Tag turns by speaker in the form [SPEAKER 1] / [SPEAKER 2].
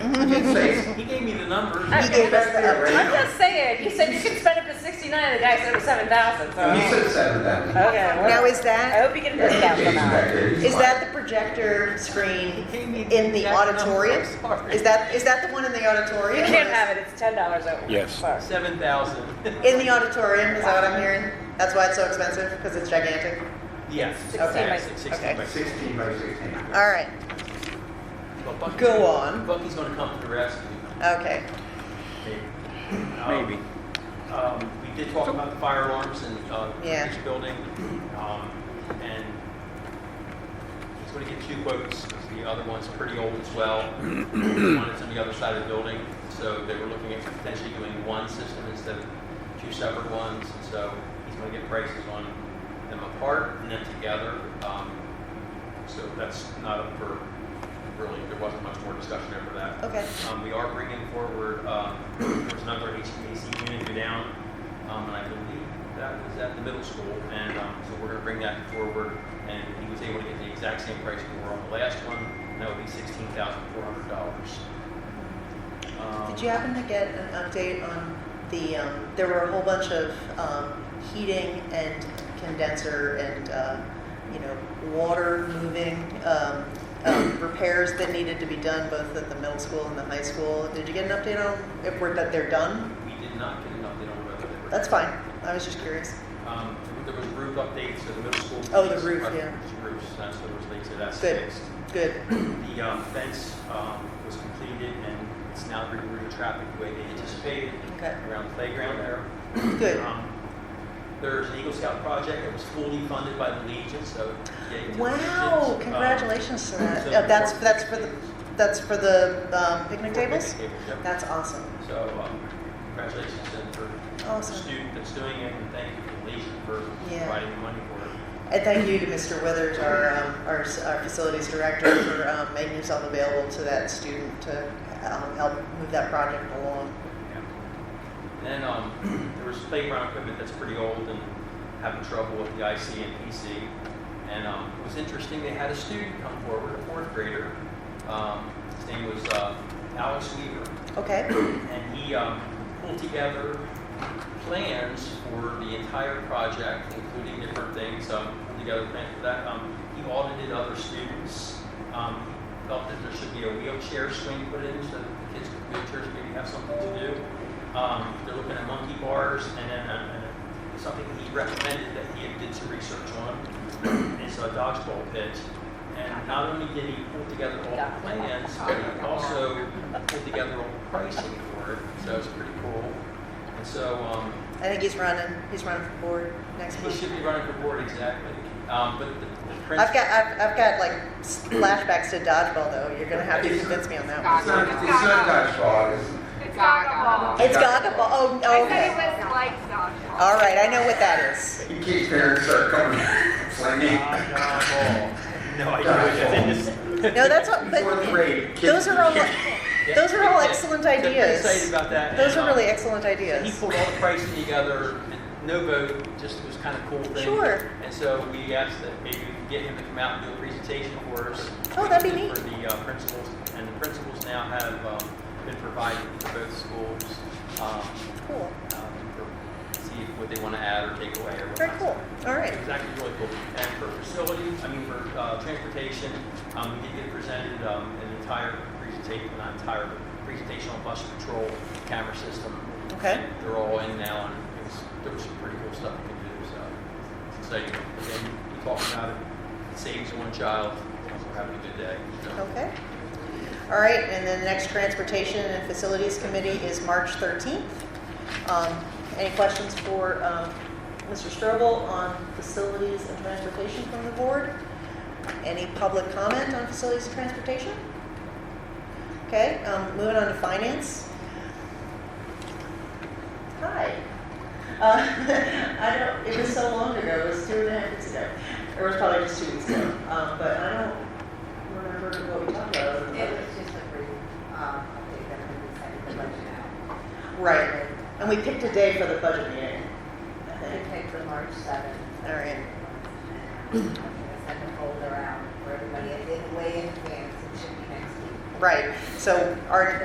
[SPEAKER 1] his face.
[SPEAKER 2] He gave me the number.
[SPEAKER 1] He gave us that
[SPEAKER 3] I'm
[SPEAKER 1] rate.
[SPEAKER 3] just saying, you said you could spend up to sixty-nine, the guy said it was seven thousand, so.
[SPEAKER 1] You
[SPEAKER 3] Okay,
[SPEAKER 1] uh, said seven thousand.
[SPEAKER 3] well,
[SPEAKER 4] Now, is
[SPEAKER 3] I
[SPEAKER 4] that,
[SPEAKER 3] hope you get a discount
[SPEAKER 1] Jason
[SPEAKER 3] from that.
[SPEAKER 1] back there, he's
[SPEAKER 4] is
[SPEAKER 1] like-
[SPEAKER 4] that the projector screen in the auditorium? Is that, is that the one in the auditorium?
[SPEAKER 3] You can't have it, it's ten dollars over.
[SPEAKER 5] Yes.
[SPEAKER 3] Sorry.
[SPEAKER 2] Seven thousand.
[SPEAKER 4] In the auditorium, is that what I'm hearing? That's why it's so expensive, because it's gigantic?
[SPEAKER 2] Yes.
[SPEAKER 3] Okay.
[SPEAKER 2] Yes, it's Sixteen
[SPEAKER 4] Okay.
[SPEAKER 2] by six.
[SPEAKER 1] Sixteen by sixteen.
[SPEAKER 4] All right,
[SPEAKER 2] But Bucky's
[SPEAKER 4] Go
[SPEAKER 2] gonna-
[SPEAKER 4] on.
[SPEAKER 2] Bucky's gonna come to the rescue.
[SPEAKER 4] okay.
[SPEAKER 2] Um,
[SPEAKER 5] Maybe.
[SPEAKER 2] Um, we did talk about the fire alarms in, uh,
[SPEAKER 4] Yeah.
[SPEAKER 2] each building, um, and he's gonna get two quotes, 'cause the other one's pretty old as well. One is on the other side of the building, so they were looking at potentially doing one system instead of two separate ones, and so he's gonna get prices on them apart and then together. Um, so that's not up for, really, there wasn't much more discussion over that.
[SPEAKER 4] Okay.
[SPEAKER 2] Um, we are bringing forward, um, there's another HVAC unit go down, um, and I believe that was at the middle school, and, um, so we're gonna bring that forward, and he was able to get the exact same price we were on the last one, and that would be sixteen thousand four hundred dollars. Um,
[SPEAKER 4] Did you happen to get an update on the, um, there were a whole bunch of, um, heating and condenser and, uh, you know, water moving, um, um, repairs that needed to be done both at the middle school and the high school? Did you get an update on if we're, that they're done?
[SPEAKER 2] We did not get an update on whether they were.
[SPEAKER 4] That's fine, I was just curious.
[SPEAKER 2] Um, there was roof updates to the middle school.
[SPEAKER 4] Oh, the roof, yeah.
[SPEAKER 2] Roofs, that's what was linked to that.
[SPEAKER 4] Good, good.
[SPEAKER 2] The um, fence um, was completed and it's now rerouting traffic the way they anticipated
[SPEAKER 4] Okay.
[SPEAKER 2] around the playground there.
[SPEAKER 4] Good.
[SPEAKER 2] Um, There's an Eagle Scout project that was fully funded by the Legion, so. yay to the Legion.
[SPEAKER 4] Wow!
[SPEAKER 2] Um,
[SPEAKER 4] Congratulations to that.
[SPEAKER 2] so
[SPEAKER 4] Uh, that's
[SPEAKER 2] we're-
[SPEAKER 4] that's for the that's for the um, picnic tables.
[SPEAKER 2] Picnic tables, yep.
[SPEAKER 4] That's awesome.
[SPEAKER 2] So um, congratulations then for the
[SPEAKER 4] Awesome.
[SPEAKER 2] student that's doing it and thank you to the Legion for
[SPEAKER 4] Yeah.
[SPEAKER 2] providing the money for it.
[SPEAKER 4] And thank you to Mr. Withers, our um, our, s- our facilities director, for um, making himself available to that student to um, help move that project along.
[SPEAKER 2] Yeah. And um, there was playground equipment that's pretty old and having trouble with the IC and PC. And um, it was interesting, they had a student come forward, a fourth grader. Um, his name was uh, Alex Weaver
[SPEAKER 4] Okay.
[SPEAKER 2] and he um, pulled together plans for the entire project, including different things. Um, pulled together plans for that. Um, he audited other students. Um, he felt that there should be a wheelchair swing put in so that the kids with wheelchairs maybe have something to do. Um, they're looking at monkey bars and then uh, and then something he recommended that he had did some research on is a dodgeball pit. And not only did he pull together all the plans, but he also put together all the pricing for it, so it's pretty cool. And so, um,
[SPEAKER 4] I think he's running. He's running for board next
[SPEAKER 2] he
[SPEAKER 4] week.
[SPEAKER 2] should be running for board exactly. Um, but the, the principal.
[SPEAKER 4] I've got I've, I've got like s- flashbacks to dodgeball though. You're gonna have to convince me on that. one.
[SPEAKER 1] It's not, it's not dodgeball, it's,
[SPEAKER 6] It's Gaga.
[SPEAKER 4] It's Gaga ball. Oh,
[SPEAKER 6] I
[SPEAKER 4] oh,
[SPEAKER 6] said it
[SPEAKER 4] okay.
[SPEAKER 6] was like dodgeball.
[SPEAKER 4] All right. I know what that is.
[SPEAKER 1] you keep hearing start coming, slinging.
[SPEAKER 2] No idea. what that is.
[SPEAKER 4] No, that's what. But
[SPEAKER 1] Fourth grade, kids.
[SPEAKER 4] those are all.
[SPEAKER 2] Yeah,
[SPEAKER 4] Those are all
[SPEAKER 2] yeah.
[SPEAKER 4] excellent
[SPEAKER 2] So pretty
[SPEAKER 4] ideas.
[SPEAKER 2] Excited about that.
[SPEAKER 4] Those
[SPEAKER 2] And,
[SPEAKER 4] are
[SPEAKER 2] um,
[SPEAKER 4] really excellent
[SPEAKER 2] And he
[SPEAKER 4] ideas.
[SPEAKER 2] pulled all the pricing together, and no vote, just was kind of cool thing.
[SPEAKER 4] Sure.
[SPEAKER 2] And so we asked that maybe we could get him to come out and do a presentation for us.
[SPEAKER 4] Oh, that'd be neat.
[SPEAKER 2] For the uh, principals, and the principals now have um, been provided for both schools, um,
[SPEAKER 4] Cool.
[SPEAKER 2] um, for, see what they want to add or take away or whatnot.
[SPEAKER 4] Very cool. All right.
[SPEAKER 2] It's actually really cool. And for facility, I mean, for uh, transportation, um, we did get presented um, an entire presentation, an entire presentation on bus patrol camera system.
[SPEAKER 4] Okay.
[SPEAKER 2] They're all in now, and it was, there was some pretty cool stuff you can do, so it's exciting. And then we talked about it, it saves one child, we're having a good day. so.
[SPEAKER 4] Okay. All right, and then the next Transportation and Facilities Committee is March 13th. Um, Any questions for um, Mr. Strobel on facilities and transportation from the board? Any public comment on facilities and transportation? Okay, um, moving on to finance. Hi. Uh, I don't, it was so long ago, it was two and a half weeks ago. Or it was probably just two weeks ago, um, but I don't remember what we talked about. other than-
[SPEAKER 7] It was just a brief, um, update that we decided to let you know.
[SPEAKER 4] Right, and we picked a day for the budget meeting, I
[SPEAKER 7] We
[SPEAKER 4] think.
[SPEAKER 7] picked the March seventh.
[SPEAKER 4] All right,
[SPEAKER 7] I'm gonna send a folder out for everybody, it didn't weigh in advance, it should be next week.
[SPEAKER 4] right, so our